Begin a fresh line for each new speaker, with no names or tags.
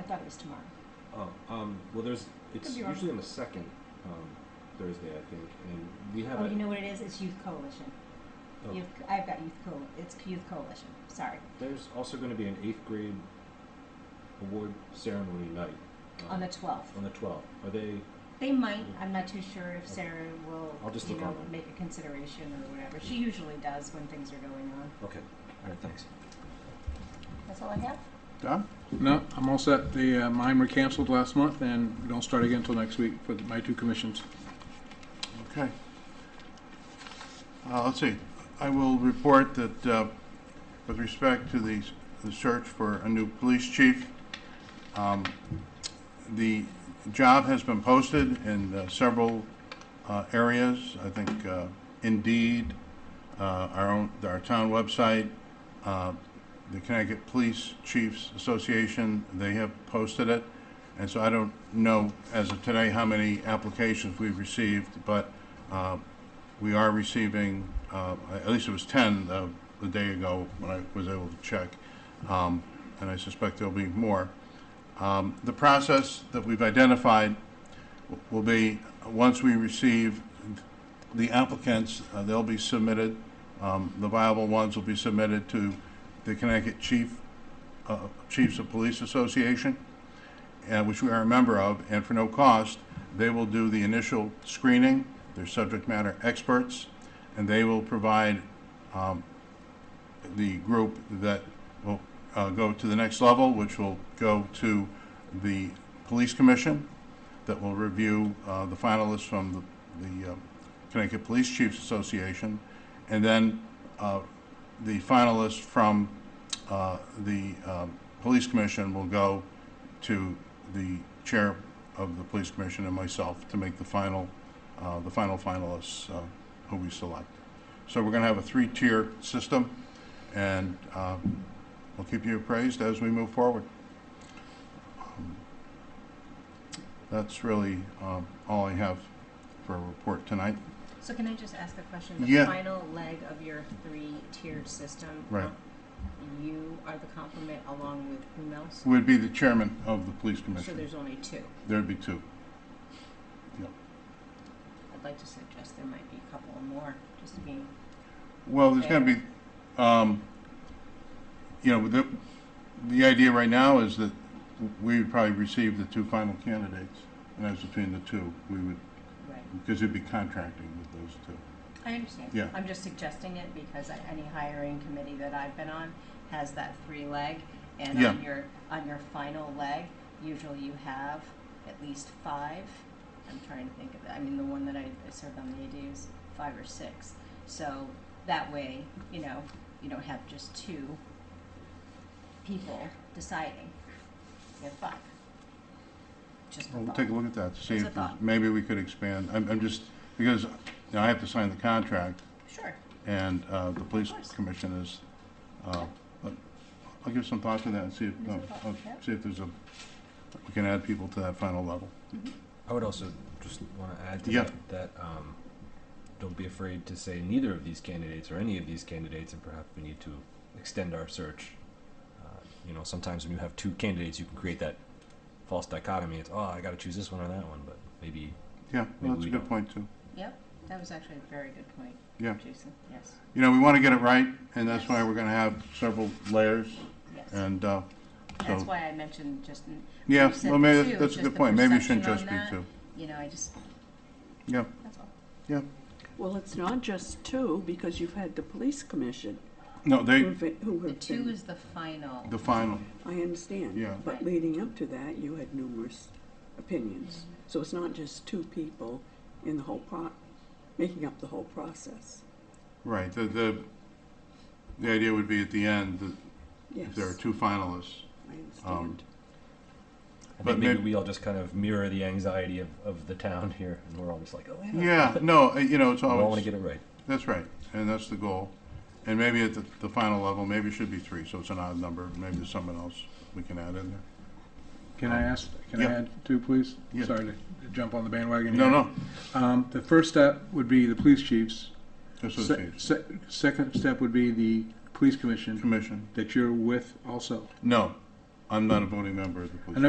thought it was tomorrow.
Oh, um, well, there's, it's
be wrong.
usually on the second, um, Thursday, I think, and we have
Oh,
a.
you know what it is? It's Youth Coalition.
oh,
Youth, I've got Youth Co, it's Youth Coalition, sorry,
There's also gonna be an eighth grade award ceremony night.
on the
um,
twelfth.
On the twelfth, are they,
They might, I'm not too sure if Sarah will,
I'll just
you
look
know,
online.
make a consideration or whatever. She usually does when things are going on.
okay, alright, thanks.
That's all I have.
Don?
No, I'm all set. The uh, mine were canceled last month, and we don't start again until next week for my two commissions.
Okay. Uh, let's see, I will report that, uh, with respect to the, the search for a new police chief, um, the job has been posted in uh, several, uh, areas. I think, uh, Indeed, uh, our own, our town website, uh, the Connecticut Police Chiefs Association, they have posted it. And so I don't know as of today how many applications we've received, but uh, we are receiving, uh, at least it was 10 the the day ago when I was able to check, Um, and I suspect there'll be more. Um, The process that we've identified w- will be, once we receive the applicants, uh, they'll be submitted, um, the viable ones will be submitted to the Connecticut Chief, uh, Chiefs of Police Association, uh, which we are a member of, and for no cost, they will do the initial screening, they're subject matter experts, and they will provide um, the group that will uh, go to the next level, which will go to the police commission that will review uh, the finalists from the, the uh, Connecticut Police Chiefs Association, and then uh, the finalists from uh, the um, police commission will go to the chair of the police commission and myself to make the final, uh, the final finalists uh, who we select. So we're going to have a three-tier system, and uh, we'll keep you appraised as we move forward. Um, That's really um, all I have for a report tonight.
So can I just ask a question? The
Yeah.
final leg of your three-tiered system.
Right.
You are the complement along with whom else?
Would be the chairman of the police
So
commission.
there's only two.
There'd be two.
I'd like to suggest there might be a couple more, just to be.
Well, there's going to be, um, you know, the, the idea right now is that we would probably receive the two final candidates, and as between the two, we would,
Right.
because we'd be contracting with those two.
I understand.
Yeah.
I'm just suggesting it because I- any hiring committee that I've been on has that three leg. And
Yeah.
on your, on your final leg, usually you have at least five. I'm trying to think of, I mean, the one that I I served on the AD was five or six. So that way, you know, you don't have just two people deciding. You have five. Just a
Well, We'll
thought.
take a look at that, see
It's a
if, there's-
thought.
maybe we could expand, I'm, I'm just, because, you know, I have to sign the contract,
Sure.
and, uh, the police
course.
commission is, uh, but I'll give some thought to that and see if,
There's a thought,
I'll
yeah.
see if there's a, we can add people to that final level.
I would also just wanna add to
Yeah.
that, that, um, don't be afraid to say neither of these candidates or any of these candidates, and perhaps we need to extend our search. Uh, You know, sometimes when you have two candidates, you can create that false dichotomy, it's, oh, I gotta choose this one or that one, but maybe,
Yeah, well,
Maybe
that's a
we
good
don't.
point, too.
Yep. That was actually a very good point,
Yeah,
Jason. Yes,
you know, we want to get it right, and that's
Yes.
why we're going to have several layers,
yes.
and, uh,
That's
So-
why I mentioned just, n-
yeah,
You said
well, maybe,
two,
that's a
just
good
the
point, maybe it shouldn't just
perception
be
on
two.
you know, I just,
Yeah,
that's all.
yeah,
Well, it's not just two, because you've had the police commission
no, they,
Mm-hmm.
who've been- who
The
have
two
been,
is the final.
the final,
I understand.
Yeah.
But leading up to that, you had numerous opinions. So it's not just two people in the whole pro, making up the whole process.
right, the, the, the idea would be at the end, that if
Yes,
there um, are two finalists,
I understand.
I
But
think maybe
may-
we all just kind of mirror the anxiety of, of the town here, and we're all just like, oh,
Yeah, no, uh, you know, it's
We all wanna
always,
get it right.
that's right, and that's the goal. And maybe at the, the final level, maybe it should be three, so it's an odd number, maybe there's someone else we can add in there.
Can I ask, can I
Yeah.
add two, please?
Yeah.
Sorry to jump on the bandwagon
No,
here.
no,
Um, The first step would be the police chiefs. Se-
association,
se- Second step would be the police commission
commission,
that you're with also.
no, I'm not a voting member of the police.
I know